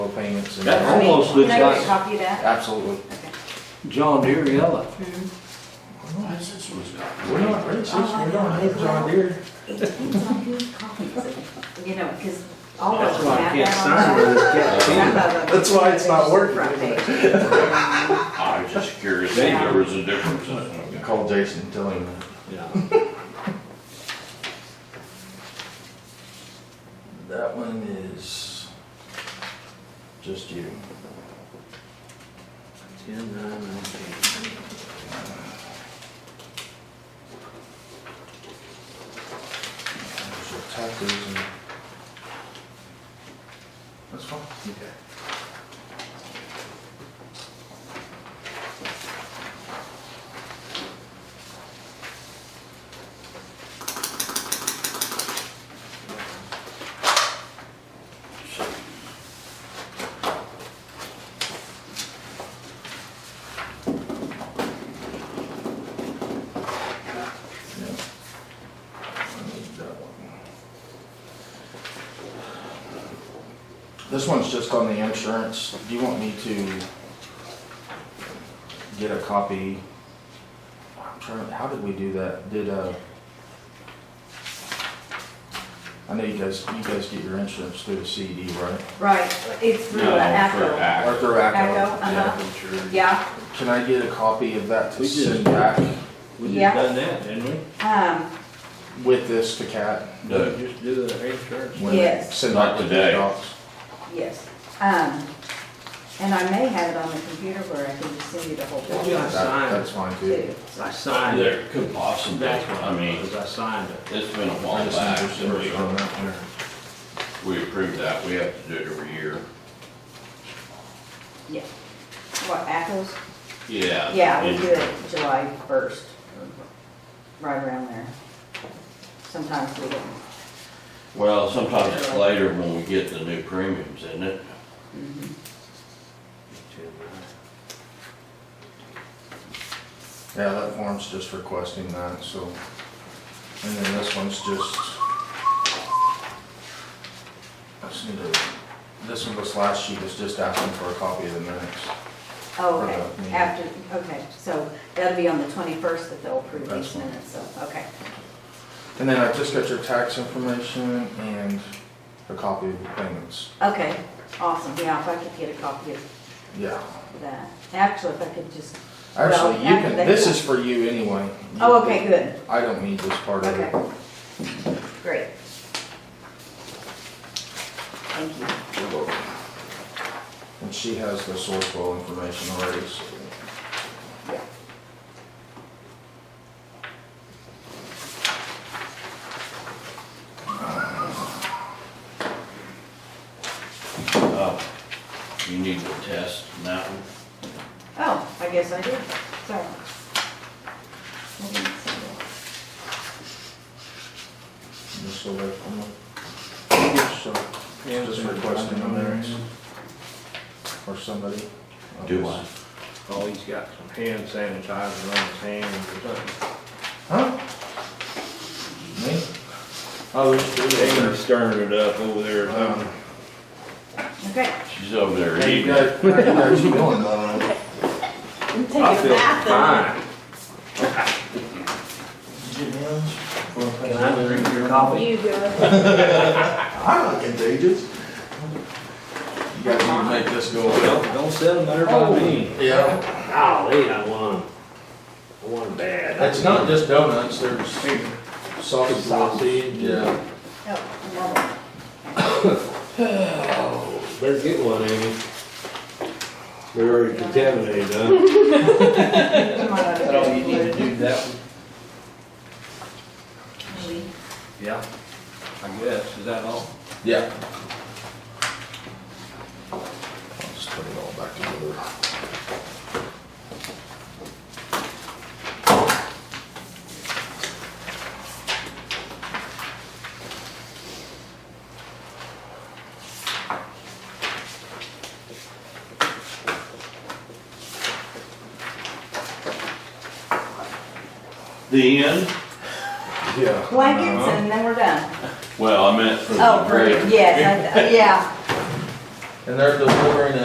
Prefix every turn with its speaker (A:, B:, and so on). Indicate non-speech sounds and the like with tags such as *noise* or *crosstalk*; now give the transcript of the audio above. A: it's in
B: That
A: there.
B: almost
C: Can
B: looks
C: I get a
B: like
C: copy of that? Hmm.
A: Absolutely.
B: John Deere
A: Well,
B: yellow.
A: that's- that's what it's got. We're not racist, we don't
C: have John
A: Deere.
C: You know, because all of
B: That's
C: them
B: why I
C: have
B: can't
C: that
B: sign
C: on.
B: with this
C: Some
B: cat.
C: of them-
A: That's why it's not working, isn't it?
C: Right.
D: I was just curious if there was a difference. in-
A: Call Jason, and tell him that.
B: Yeah.
A: That one is just you. Ten, nine, nineteen. So type those in. That's fine. Okay. Yeah. I need that one. This one's just on the insurance. Do you want me to get a copy? I'm trying, how did we do that? Did, uh, I know you guys, you guys get your insurance through the CD, right?
C: Right, it's through
D: No,
C: uh,
D: for
C: ACO.
A: Or
D: act.
A: through ACO?
C: ACO,
A: Yeah.
C: uh-huh. Yeah,
A: Can I get a copy of that to
B: We did.
A: send back
B: We
C: Yeah.
B: just done that, didn't we?
C: um,
A: with this to Cat?
D: No.
B: We Just do the insurance.
A: when they
C: Yes.
A: Send
D: Not
A: out the
D: today.
A: docs?
C: yes. Um, and I may have it on the computer where I can just send you the whole book.
B: Yeah.
A: That-
B: Signed.
A: That's fine too.
C: too.
B: I signed it.
D: There could possibly,
B: That's what
D: I mean,
B: I signed it.
D: it's been a
A: I
D: while
A: just
D: back
A: need to
D: since
A: search on
D: we,
A: that one.
D: we approved that. We have to do it every year.
C: Yeah. What, ACOs?
D: Yeah.
C: Yeah, we
D: and-
C: do it July first, right around there. Sometimes we don't.
D: Well, sometimes it's later when we get the new premiums, isn't it?
A: Yeah, that form's just requesting that, so. And then this one's just. I just need to, this one, this last sheet is just asking for a copy of the minutes.
C: Oh,
A: Right,
C: okay,
A: yeah.
C: after, okay, so that'll be on the twenty-first that they'll approve
A: That's
C: these
A: fine.
C: minutes, so, okay.
A: And then I just got your tax information and a copy of the payments.
C: Okay, awesome, yeah, if I could get a copy of
A: Yeah.
C: that. Actually, if I could just, Well,
A: Actually, you can,
C: after
A: this
C: they-
A: is for you anyway.
C: oh, okay, good,
A: I don't need this part of it.
C: okay. Great. Thank you.
A: And she has the sourcewell information already, so.
C: Yeah.
D: Uh, You need to test and that one.
C: Oh, I guess I did, sorry. I didn't see
A: Just so that, I'm not- just so- just requesting the minutes. Or somebody.
D: Do I?
B: Oh, he's got some hand sanitizer on his hands or something.
A: Huh? Me? Oh, there's two
B: They're
A: there.
B: stirring it up over there or
A: Um,
B: something.
C: that. Okay.
D: She's over there
A: How you *laughs*
D: eating.
A: guys, how you guys doing? Uh,
C: I'm taking
B: I feel
C: bath
B: fine.
A: you getting in? Wanna play
B: Can I drink your coffee?
C: You do it.
A: I'm not contagious. You guys need to make this go
B: Don't,
A: well.
B: don't settle there
C: Oh.
B: by me.
A: Yeah,
B: Golly, I won. I won bad.
A: it's not just donuts, there's sausage. Sausage. Yeah.
C: Oh, another.
E: Better get one, Amy. They're already contaminated, huh?
C: Come on, I'll
B: That's all you
C: do
B: need
C: it.
B: to do that one.
C: Maybe.
B: Yeah. I guess, is that all?
A: Yeah. I'll just put it all back together.
D: The end?
A: Yeah.
C: Blankets and then we're done.
D: Well, I meant for the
C: Oh,
D: grade.
C: yes, I- yeah.
A: And they're delivering